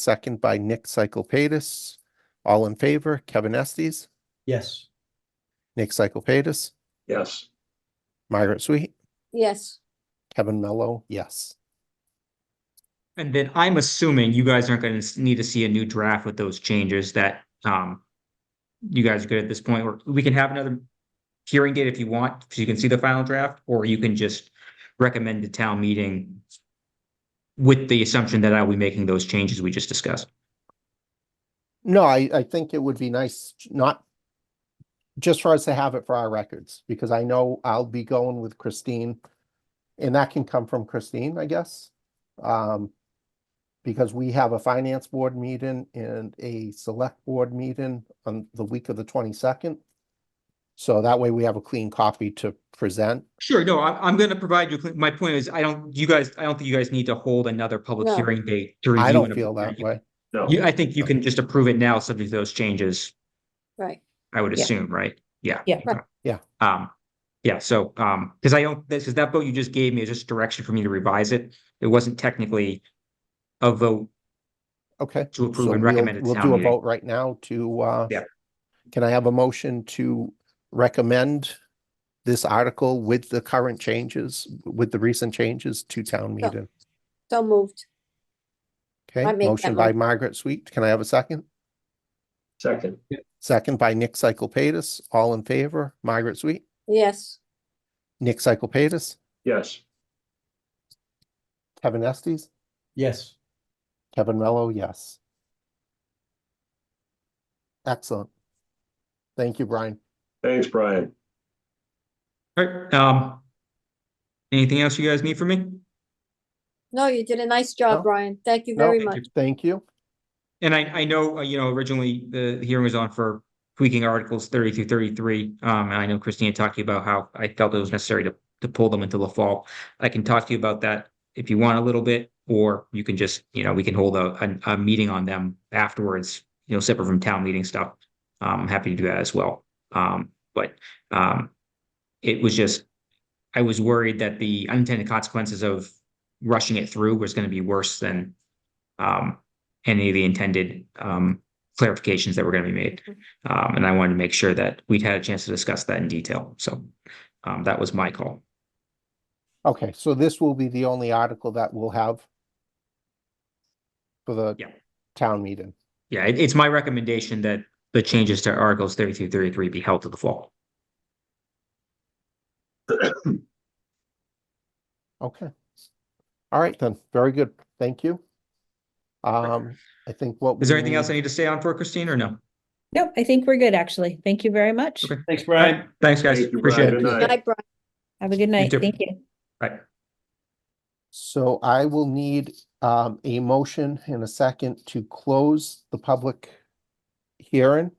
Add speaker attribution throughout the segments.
Speaker 1: second by Nick Cyclepatis. All in favor, Kevin Estes,
Speaker 2: Yes,
Speaker 1: Nick Cyclepatis,
Speaker 3: Yes,
Speaker 1: Margaret Sweet,
Speaker 4: Yes,
Speaker 1: Kevin Mello, yes.
Speaker 5: And then I'm assuming you guys aren't gonna s- need to see a new draft with those changes that, um. You guys are good at this point, or we can have another hearing date if you want, so you can see the final draft, or you can just recommend the town meeting. With the assumption that I'll be making those changes we just discussed.
Speaker 1: No, I, I think it would be nice not just for us to have it for our records, because I know I'll be going with Christine. And that can come from Christine, I guess. Um, because we have a finance board meeting and a select board meeting on the week of the twenty-second. So that way we have a clean copy to present.
Speaker 5: Sure, no, I'm, I'm gonna provide you, my point is, I don't, you guys, I don't think you guys need to hold another public
Speaker 4: No.
Speaker 5: hearing date to review.
Speaker 1: I don't
Speaker 5: and
Speaker 1: feel
Speaker 5: approve
Speaker 1: that
Speaker 5: it.
Speaker 1: way.
Speaker 3: no,
Speaker 5: You, I think you can just approve it now, subject to those changes.
Speaker 4: right.
Speaker 5: I would
Speaker 6: Yeah.
Speaker 5: assume, right? Yeah.
Speaker 6: Yeah.
Speaker 4: Right.
Speaker 1: Yeah.
Speaker 5: Um, yeah, so, um, because I don't, this is that vote you just gave me is just direction for me to revise it. It wasn't technically a vote
Speaker 1: Okay.
Speaker 5: to
Speaker 1: So
Speaker 5: approve and
Speaker 1: we'll-
Speaker 5: recommend at
Speaker 1: We'll
Speaker 5: town
Speaker 1: do a
Speaker 5: meeting.
Speaker 1: vote right now to, uh.
Speaker 5: Yeah.
Speaker 1: Can I have a motion to recommend this article with the current changes, with the recent changes to town
Speaker 4: So-
Speaker 1: meeting?
Speaker 4: So moved.
Speaker 1: Okay,
Speaker 4: I make that
Speaker 1: motion by
Speaker 4: motion.
Speaker 1: Margaret Sweet. Can I have a second?
Speaker 3: second,
Speaker 1: Second by Nick Cyclepatis. All in favor? Margaret Sweet,
Speaker 4: Yes,
Speaker 1: Nick Cyclepatis,
Speaker 3: yes,
Speaker 1: Kevin Estes,
Speaker 2: yes,
Speaker 1: Kevin Mello, yes. Excellent. Thank you, Brian.
Speaker 3: thanks, Brian.
Speaker 5: Alright, um. Anything else you guys need from me?
Speaker 4: no, you did a nice
Speaker 1: No.
Speaker 4: job, Brian. Thank you
Speaker 1: No,
Speaker 4: very
Speaker 5: thank you.
Speaker 4: much.
Speaker 1: Thank you.
Speaker 5: And I, I know, uh, you know, originally the the hearing was on for tweaking articles thirty through thirty-three. Um, and I know Christine had talked to you about how I felt it was necessary to, to pull them until the fall. I can talk to you about that if you want a little bit, or you can just, you know, we can hold a, a, a meeting on them afterwards, you know, separate from town meeting stuff. Um, I'm happy to do that as well. Um, but, um, it was just, I was worried that the unintended consequences of rushing it through was going to be worse than, um, any of the intended um clarifications that were going to be made. Um, and I wanted to make sure that we'd had a chance to discuss that in detail. So um, that was my call.
Speaker 1: Okay, so this will be the only article that we'll have for the
Speaker 5: Yeah.
Speaker 1: town meeting.
Speaker 5: Yeah, it, it's my recommendation that the changes to Articles 32, 33 be held to the fall.
Speaker 1: Okay. All right then, very good. Thank you. Um, I think what.
Speaker 5: Is there
Speaker 1: we
Speaker 5: anything else I
Speaker 1: need-
Speaker 5: need to stay on for, Christine, or no?
Speaker 6: Nope, I think we're good, actually. Thank you very much.
Speaker 5: Okay.
Speaker 2: thanks, Brian.
Speaker 5: Thanks, guys.
Speaker 3: Thank you,
Speaker 5: Appreciate
Speaker 3: Brian.
Speaker 5: it.
Speaker 3: Good night.
Speaker 4: Night, Brian.
Speaker 6: Have a good night.
Speaker 5: too.
Speaker 6: Thank you.
Speaker 5: Right.
Speaker 1: So I will need um a motion in a second to close the public hearing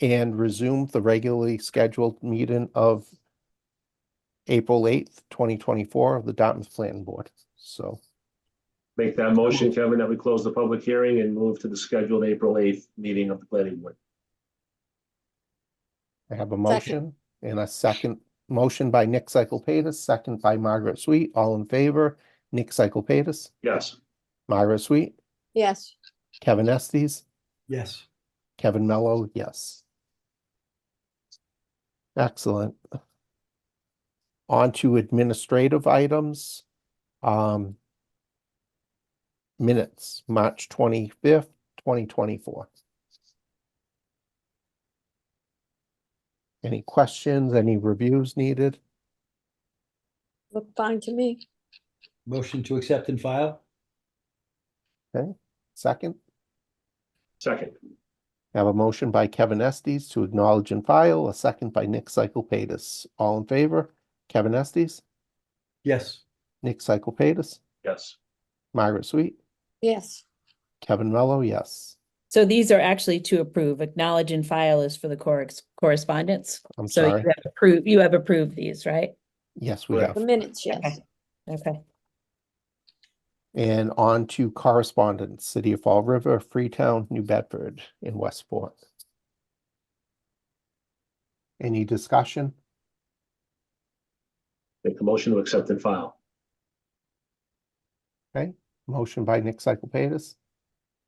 Speaker 1: and resume the regularly scheduled meeting of April eighth, twenty twenty-four of the Dartmouth Planning Board. So
Speaker 3: Make that motion, Kevin, that we close the public hearing and move to the scheduled April eighth meeting of the planning board.
Speaker 1: I have a motion and a second, motion by Nick Cyclepatis, second by Margaret Sweet, all in favor. Nick Cyclepatis,
Speaker 3: Yes,
Speaker 1: Margaret Sweet,
Speaker 4: Yes,
Speaker 1: Kevin Estes,
Speaker 2: Yes,
Speaker 1: Kevin Mello, yes. Excellent. On to administrative items. Um. Minutes, March twenty-fifth, twenty twenty-four. Any questions, any reviews needed?
Speaker 4: look fine to me.
Speaker 2: motion to accept and file?
Speaker 1: Second,
Speaker 3: second,
Speaker 1: I have a motion by Kevin Estes to acknowledge and file, a second by Nick Cyclepatis. All in favor? Kevin Estes,
Speaker 2: Yes,
Speaker 1: Nick Cyclepatis,
Speaker 3: yes,
Speaker 1: Margaret Sweet,
Speaker 4: Yes,
Speaker 1: Kevin Mello, yes.
Speaker 6: So these are actually to approve. Acknowledge and file is for the cor- correspondence.
Speaker 1: I'm
Speaker 6: So you
Speaker 1: sorry.
Speaker 6: have approved, you have approved these, right?
Speaker 1: Yes, we have.
Speaker 3: Correct.
Speaker 4: the minutes, yes.
Speaker 6: Okay. Okay.
Speaker 1: And on to correspondence, City of Fall River, Freetown, New Bedford, and Westport. Any discussion?
Speaker 3: make the motion to accept and file.
Speaker 1: Motion by Nick Cyclepatis,